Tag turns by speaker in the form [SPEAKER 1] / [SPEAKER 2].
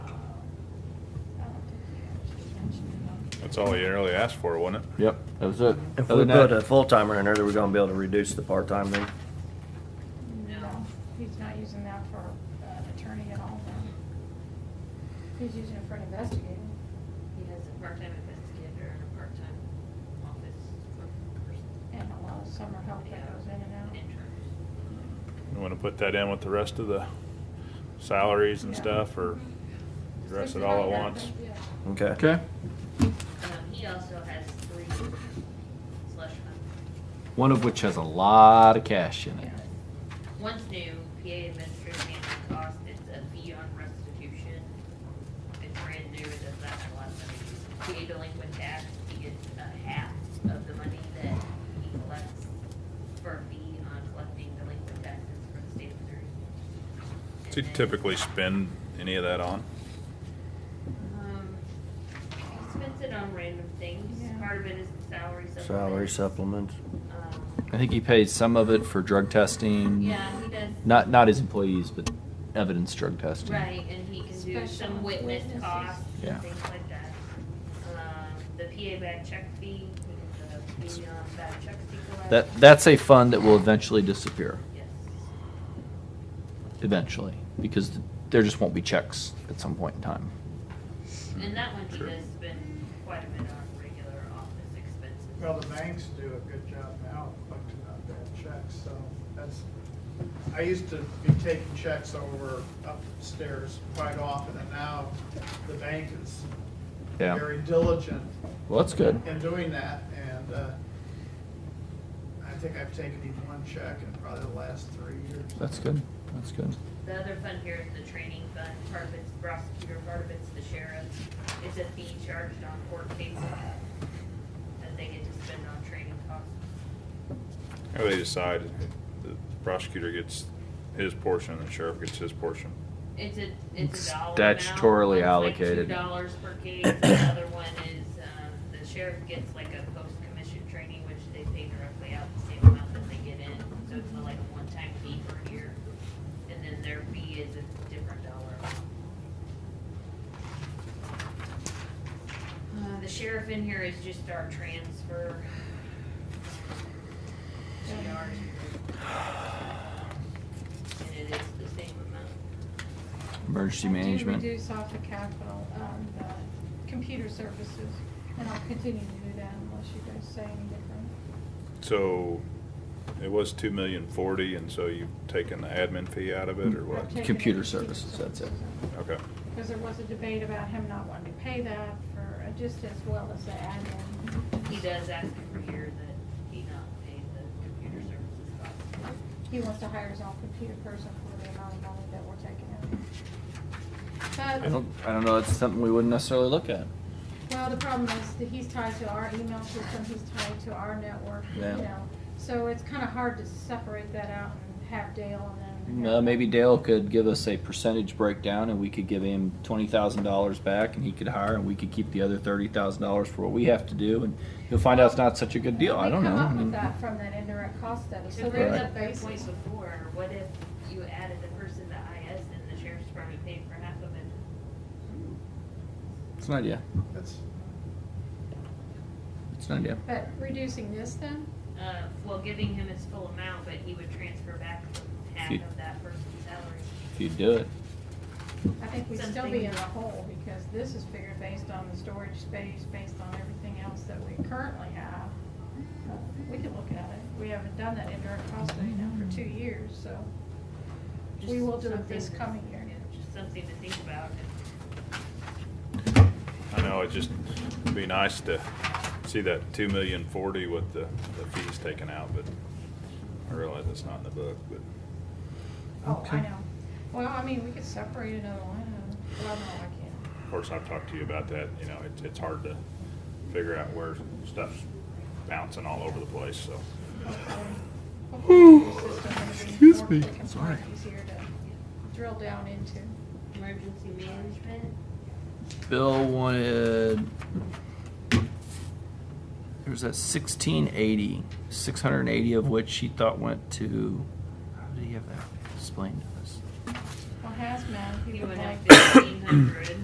[SPEAKER 1] That's all you really asked for, wasn't it?
[SPEAKER 2] Yep, that was it.
[SPEAKER 3] If
[SPEAKER 2] Other
[SPEAKER 3] we
[SPEAKER 2] than
[SPEAKER 3] put
[SPEAKER 2] that-
[SPEAKER 3] a full timer in there, are we gonna be able to reduce the part time then?
[SPEAKER 4] No, he's not using that for an attorney at all, though. He's using it for an investigator.
[SPEAKER 5] He has a part-time investigator and a part-time office person.
[SPEAKER 4] And a lot of summer help that goes in and out.
[SPEAKER 5] out.
[SPEAKER 1] You wanna put that in with the rest of the salaries and
[SPEAKER 4] Yeah.
[SPEAKER 1] stuff, or address it all at once?
[SPEAKER 3] Okay.
[SPEAKER 2] Okay,
[SPEAKER 5] Um, he also has three slush funds.
[SPEAKER 2] one of which has a lot of cash in it.
[SPEAKER 5] One's new, PA administrative management cost, it's a fee on restitution. It's brand new, it doesn't have a lot of money. PA delinquent tax, he gets a half of the money that he collects for a fee on collecting delinquent taxes for the state of Missouri.
[SPEAKER 1] Does he
[SPEAKER 5] And then-
[SPEAKER 1] typically spend any of that on?
[SPEAKER 5] Um, he spends it on random
[SPEAKER 4] Yeah.
[SPEAKER 5] things. Part of it is the salary supplement.
[SPEAKER 3] Salary supplements.
[SPEAKER 5] Um,
[SPEAKER 2] I think he pays some of it for drug testing.
[SPEAKER 5] Yeah, he does.
[SPEAKER 2] Not, not his employees, but evidence drug testing.
[SPEAKER 5] Right, and he can do
[SPEAKER 4] Special
[SPEAKER 5] some witness
[SPEAKER 4] witnesses.
[SPEAKER 5] costs
[SPEAKER 2] Yeah.
[SPEAKER 5] and things like that. Um, the PA bad check fee, he gets a fee on bad checks he collects.
[SPEAKER 2] That, that's a fund that will eventually disappear,
[SPEAKER 5] Yes.
[SPEAKER 2] eventually, because there just won't be checks at some point in time.
[SPEAKER 5] And that one he
[SPEAKER 1] Sure.
[SPEAKER 5] does spend quite a bit on regular office expenses.
[SPEAKER 6] Well, the banks do a good job now of collecting out bad checks, so that's, I used to be taking checks over upstairs quite often, and now the bank is
[SPEAKER 2] Yeah.
[SPEAKER 6] very diligent
[SPEAKER 2] Well, that's good.
[SPEAKER 6] in doing that, and, uh, I think I've taken even one check in probably the last three years.
[SPEAKER 2] That's good. That's good.
[SPEAKER 5] The other fund here is the training fund, part of it's prosecutor, part of it's the sheriff. It's a fee charged on court cases that they get to spend on training costs.
[SPEAKER 1] How they decide, the prosecutor gets his portion, the sheriff gets his portion.
[SPEAKER 5] It's a,
[SPEAKER 2] It's
[SPEAKER 5] it's a dollar amount.
[SPEAKER 2] statutorily
[SPEAKER 5] One's like
[SPEAKER 2] allocated.
[SPEAKER 5] Two dollars per case, the other one is, um, the sheriff gets like a post-commission training, which they pay directly out the same amount that they get in. So it's like a one-time fee per year, and then their fee is a different dollar amount. Uh, the sheriff in here is just our transfer. GR. And it is the same amount.
[SPEAKER 2] Emergency
[SPEAKER 4] I do
[SPEAKER 2] management.
[SPEAKER 4] reduce off the capital, um, the computer services, and I'll continue to do that unless you guys say any different.
[SPEAKER 1] So, it was two million forty, and so you've taken the admin fee out of it, or
[SPEAKER 4] I've
[SPEAKER 1] what?
[SPEAKER 4] taken
[SPEAKER 2] Computer
[SPEAKER 4] it to
[SPEAKER 2] services, that's it.
[SPEAKER 4] services.
[SPEAKER 1] Okay,
[SPEAKER 4] Because there was a debate about him not wanting to pay that for, uh, just as well as the admin.
[SPEAKER 5] He does ask every year that he not pay the computer services cost.
[SPEAKER 4] He wants to hire his own computer person for the amount of money that we're taking
[SPEAKER 2] I
[SPEAKER 4] in. But,
[SPEAKER 2] don't, I don't know. It's something we wouldn't necessarily look at.
[SPEAKER 4] well, the problem is that he's tied to our email system, he's tied to our network, you
[SPEAKER 2] Yeah.
[SPEAKER 4] know. So it's kind of hard to separate that out and have Dale and then.
[SPEAKER 2] Uh, maybe Dale could give us a percentage breakdown, and we could give him twenty thousand dollars back, and he could hire, and we could keep the other thirty thousand dollars for what we have to do, and he'll find out it's not such a good deal. I don't know. Mm-hmm.
[SPEAKER 4] We come
[SPEAKER 2] Mm. I
[SPEAKER 4] up
[SPEAKER 2] mean,
[SPEAKER 4] with that from that indirect cost study, so
[SPEAKER 5] To bring
[SPEAKER 4] there's a
[SPEAKER 5] up your point
[SPEAKER 4] basis.
[SPEAKER 5] before, what if you added the person to IS and the sheriff's department paid for half of it?
[SPEAKER 2] It's an idea.
[SPEAKER 6] That's,
[SPEAKER 2] It's an idea.
[SPEAKER 4] But reducing this then,
[SPEAKER 5] Uh, well, giving him his full amount, but he would transfer back half
[SPEAKER 2] Few-
[SPEAKER 5] of that person's salary.
[SPEAKER 2] If you do it,
[SPEAKER 4] I think we'd still be
[SPEAKER 5] Something-
[SPEAKER 4] in the hole, because this is figured based on the storage space, based on everything else that we currently have. Uh, We could look at it, we haven't done that indirect cost study now for two years, so we
[SPEAKER 5] Just
[SPEAKER 4] will do it
[SPEAKER 5] something
[SPEAKER 4] this
[SPEAKER 5] to-
[SPEAKER 4] coming year.
[SPEAKER 5] yeah, Just something to think about.
[SPEAKER 1] I know, it'd just be nice to see that two million forty with the, the fees taken out, but I realize it's not in the book, but
[SPEAKER 4] Oh, I
[SPEAKER 2] Okay.
[SPEAKER 4] know. Well, I mean, we could separate another line item, well, no, I can't.
[SPEAKER 1] of course, I've talked to you about that, you know, it's, it's hard to figure out where stuff's bouncing all over the place, so.
[SPEAKER 4] Excuse me. Sorry. Easier to drill down into.
[SPEAKER 5] Emergency management,
[SPEAKER 2] Bill wanted. There was that 1680, 680 of which he thought went to. How did he have that explained to us?
[SPEAKER 4] Well, hazmat, he
[SPEAKER 5] you
[SPEAKER 4] would
[SPEAKER 5] would have
[SPEAKER 4] like.
[SPEAKER 5] fifteen hundred.